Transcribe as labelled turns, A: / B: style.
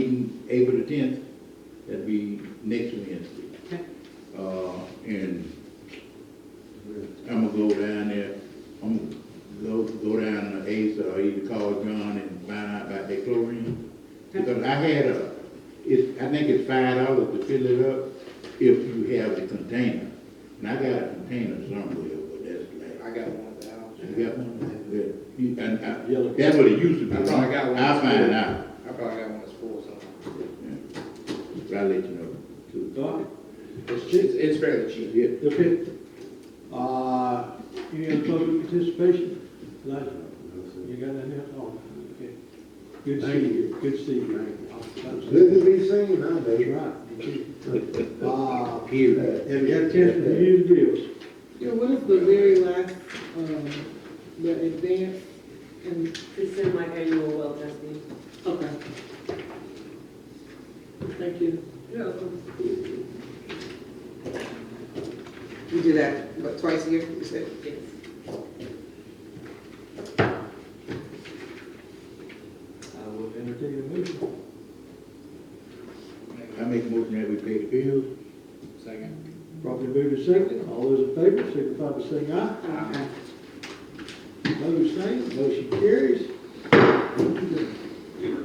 A: April the tenth, that'd be next Wednesday.
B: Okay.
A: Uh, and I'm gonna go down there, I'm gonna go, go down to Ace or either call John and find out about that chlorine.
B: Okay.
A: Because I had a, it's, I think it's five dollars to fill it up if you have the container. And I got a container somewhere, but that's like,
C: I got one at the house.
A: you got one? Yeah. You- And I,
D: Yellow.
A: that's what it used to
C: I
A: be.
C: thought I got one.
A: I'll find out.
C: I probably got one that's full somewhere.
A: But I'll let you know too.
D: Don,
C: It's cheap, it's fairly cheap.
A: Yeah.
D: the fifth. Uh, any other public participation? Elijah, you got anything else? Oh, okay. Good to see you, good to see you.
E: Good to be seen
D: That's
E: nowadays.
D: right. Uh,
A: Period.
D: have you got a chance to review the bills?
F: Yeah, what is the very last, um, the advance and,
B: It's in my annual well testing.
F: okay. Thank you.
B: Yeah.
G: You do that, what, twice a year, you said?
D: I will entertain a motion.
A: I make a motion that we pay the bills.
C: Second.
D: Properly moved and seconded, all those in favor, signify by saying aye.
F: Okay.
D: Opposed, same, motion carries.